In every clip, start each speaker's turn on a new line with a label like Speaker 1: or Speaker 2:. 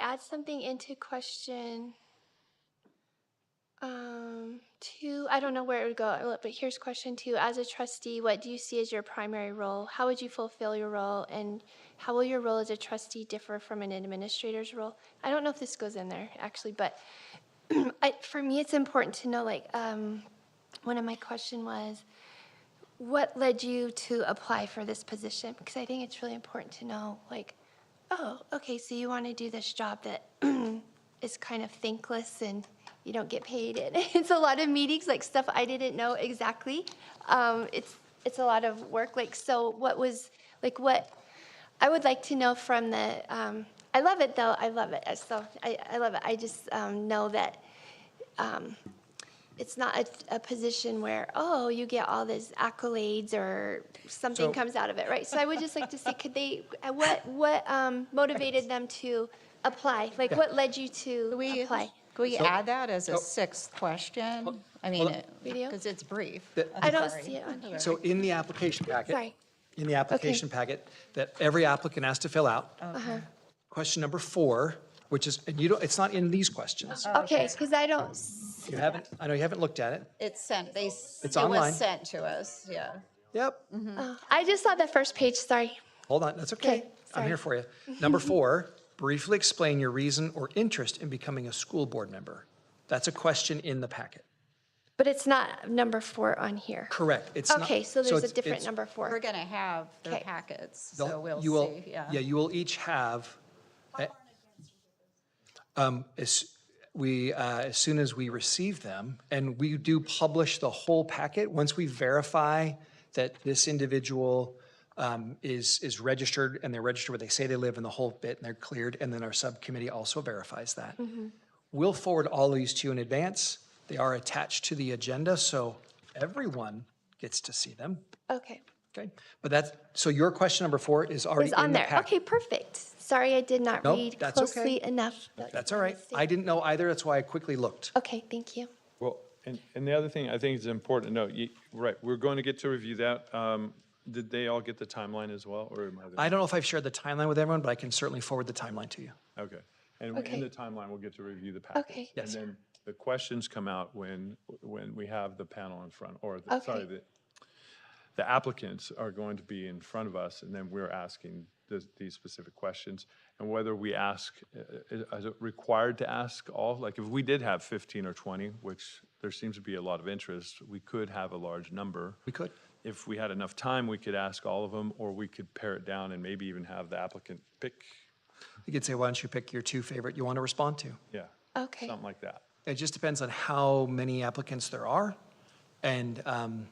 Speaker 1: add something into question um, two. I don't know where it would go, but here's question two. As a trustee, what do you see as your primary role? How would you fulfill your role? And how will your role as a trustee differ from an administrator's role? I don't know if this goes in there actually, but I, for me, it's important to know like, um, one of my question was, what led you to apply for this position? Because I think it's really important to know, like, oh, okay, so you want to do this job that is kind of thankless and you don't get paid. And it's a lot of meetings, like stuff I didn't know exactly. Um, it's it's a lot of work. Like, so what was like what I would like to know from the. Um, I love it though. I love it. So I, I love it. I just um, know that um, it's not a, a position where, oh, you get all these accolades or something
Speaker 2: So-
Speaker 1: comes out of it, right? So I would just like to see, could they, uh, what, what um, motivated them to apply? Like, what led you to
Speaker 3: we,
Speaker 1: apply?
Speaker 3: could we
Speaker 2: So-
Speaker 3: add that as
Speaker 2: Oh.
Speaker 3: a sixth question? I mean,
Speaker 1: Video?
Speaker 3: because it's brief.
Speaker 2: That-
Speaker 3: I'm
Speaker 1: I don't
Speaker 3: sorry.
Speaker 1: see it on here.
Speaker 2: So in the application packet.
Speaker 1: Sorry.
Speaker 2: In the application packet that every applicant has to fill out.
Speaker 1: Uh-huh.
Speaker 2: Question number four, which is, and you don't, it's not in these questions.
Speaker 1: Okay, because I don't, s-
Speaker 2: You haven't, I know you haven't looked at it.
Speaker 3: It's sent, they, s- it
Speaker 2: online.
Speaker 3: was sent to us, yeah.
Speaker 2: Yep.
Speaker 1: oh, I just saw the first page, sorry.
Speaker 2: Hold on, that's okay.
Speaker 1: Okay,
Speaker 2: I'm here for you. Number four, briefly explain your reason or interest in becoming a school board member. That's a question in the packet.
Speaker 1: But it's not number four on here.
Speaker 2: Correct. It's not-
Speaker 1: Okay, so there's a
Speaker 2: it's-
Speaker 1: different
Speaker 2: it's-
Speaker 1: number
Speaker 3: We're
Speaker 1: four.
Speaker 3: going to have their
Speaker 1: Okay.
Speaker 3: packets,
Speaker 2: they'll-
Speaker 3: so we'll
Speaker 2: you will-
Speaker 3: see, yeah.
Speaker 2: you will each have. a- Um, as, we, uh, as soon as we receive them, and we do publish the whole packet, once we verify that this individual um, is, is registered, and they're registered where they say they live, and the whole bit, and they're cleared, and then our subcommittee also verifies that.
Speaker 3: Mm-hmm.
Speaker 2: We'll forward all these to you in advance. They are attached to the agenda, so everyone gets to see them.
Speaker 1: Okay,
Speaker 2: Okay, but that's, so your question number four is
Speaker 1: it
Speaker 2: already
Speaker 1: was on
Speaker 2: in the
Speaker 1: there. Okay,
Speaker 2: packet.
Speaker 1: perfect. Sorry, I did not
Speaker 2: Nope,
Speaker 1: read
Speaker 2: that's okay.
Speaker 1: closely enough.
Speaker 2: That's all right. I didn't know either, that's why I quickly looked.
Speaker 1: Okay, thank you.
Speaker 4: Well, and, and the other thing I think is important to note, you, right, we're going to get to review that. Um, did they all get the timeline as well, or am I? the-
Speaker 2: I don't know if I've shared the timeline with everyone, but I can certainly forward the timeline to you.
Speaker 4: Okay. And
Speaker 1: Okay.
Speaker 4: in the timeline, we'll get to review the package.
Speaker 1: Okay.
Speaker 2: Yes.
Speaker 4: And then the questions come out when, when we have the panel in front, or, the- sorry,
Speaker 1: Okay.
Speaker 4: the, the applicants are going to be in front of us, and then we're asking this- these specific questions. And whether we ask, uh, uh, is it required to ask all, like, if we did have 15 or 20, which there seems to be a lot of interest, we could have a large number.
Speaker 2: We could.
Speaker 4: If we had enough time, we could ask all of them, or we could pare it down and maybe even have the applicant pick,
Speaker 2: You could say, why don't you pick your two favorite you want to respond to?
Speaker 4: yeah.
Speaker 1: Okay.
Speaker 4: Something like that.
Speaker 2: It just depends on how many applicants there are. And, um,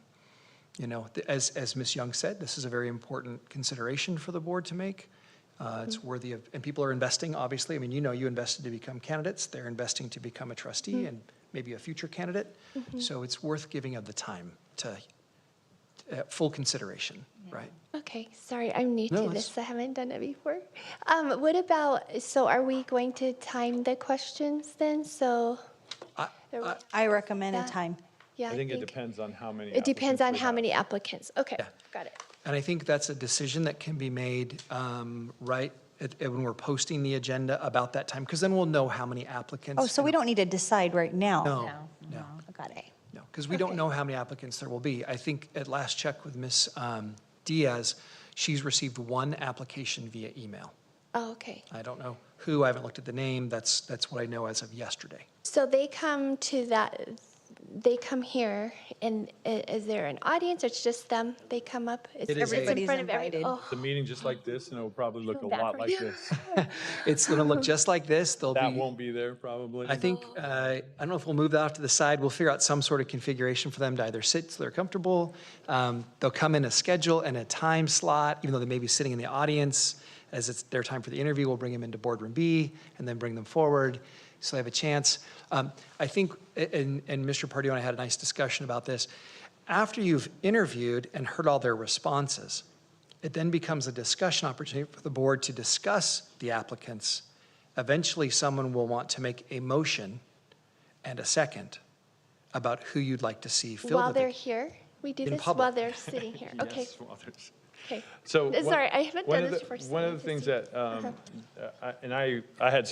Speaker 2: you know, th- as, as Ms. Young said, this is a very important consideration for the board to make.
Speaker 5: Mm-hmm.
Speaker 2: Uh, It's worthy of, and people are investing, obviously. I mean, you know, you invested to become candidates. They're investing to become a
Speaker 5: Mm-hmm.
Speaker 2: trustee and maybe a future candidate. So it's worth giving of the time to, uh, full consideration, right?
Speaker 1: Okay, sorry, I'm new
Speaker 2: No,
Speaker 1: to
Speaker 2: it's-
Speaker 1: this. I haven't done it before. Um, what about, so are we going to time the questions then? So, There we-
Speaker 5: I recommend a
Speaker 1: That-
Speaker 5: time.
Speaker 1: yeah,
Speaker 4: I think it depends on how many.
Speaker 1: It depends
Speaker 4: applicants
Speaker 1: on
Speaker 4: we
Speaker 1: how
Speaker 4: have.
Speaker 1: many applicants. Okay,
Speaker 2: Yeah.
Speaker 1: got it.
Speaker 2: And I think that's a decision that can be made, um, right, at- at when we're posting the agenda about that time, because then we'll know how many applicants.
Speaker 5: Oh, so we don't need to decide right now?
Speaker 2: No,
Speaker 3: No,
Speaker 2: no,
Speaker 5: Got it.
Speaker 2: no, because we don't
Speaker 1: Okay.
Speaker 2: know how many applicants there will be. I think at last check with Ms. um, Diaz, she's received one application via email.
Speaker 1: Oh, okay.
Speaker 2: I don't know who, I haven't looked at the name, that's, that's what I know as of yesterday.
Speaker 1: So they come to that, they come here, and i- is there an audience or it's just them? They come up? It's
Speaker 2: It is
Speaker 1: everybody
Speaker 2: a-
Speaker 1: in
Speaker 5: Everybody's
Speaker 1: front of everybody.
Speaker 5: invited.
Speaker 1: Oh,
Speaker 4: The meeting just like this, and it'll probably look a
Speaker 1: bad
Speaker 4: lot
Speaker 1: for
Speaker 4: like
Speaker 1: you.
Speaker 4: this.
Speaker 2: It's going to look just like this, there'll be.
Speaker 4: That won't be there probably.
Speaker 2: I think, uh, I don't know if we'll move that off to the side. We'll figure out some sort of configuration for them to either sit so they're comfortable. Um, They'll come in a schedule and a time slot, even though they may be sitting in the audience. As it's their time for the interview, we'll bring them into boardroom B and then bring them forward so they have a chance. Um, I think, and, and Mr. Pardue and I had a nice discussion about this. After you've interviewed and heard all their responses, it then becomes a discussion opportunity for the board to discuss the applicants. Eventually, someone will want to make a motion and a second about who you'd like to see fill
Speaker 1: while
Speaker 2: the
Speaker 1: they're
Speaker 2: vacancy.
Speaker 1: here? We do
Speaker 2: In
Speaker 1: this while
Speaker 2: public.
Speaker 1: they're sitting here? Okay,
Speaker 4: Yes, well, there's-
Speaker 1: okay.
Speaker 4: So.
Speaker 1: Uh,
Speaker 4: one-
Speaker 1: Sorry, I haven't
Speaker 4: one
Speaker 1: done
Speaker 4: of
Speaker 1: this
Speaker 4: the-
Speaker 1: before. so
Speaker 4: One
Speaker 1: I
Speaker 4: of the
Speaker 1: just
Speaker 4: things
Speaker 1: need-
Speaker 4: that, um, uh, I- and I, I had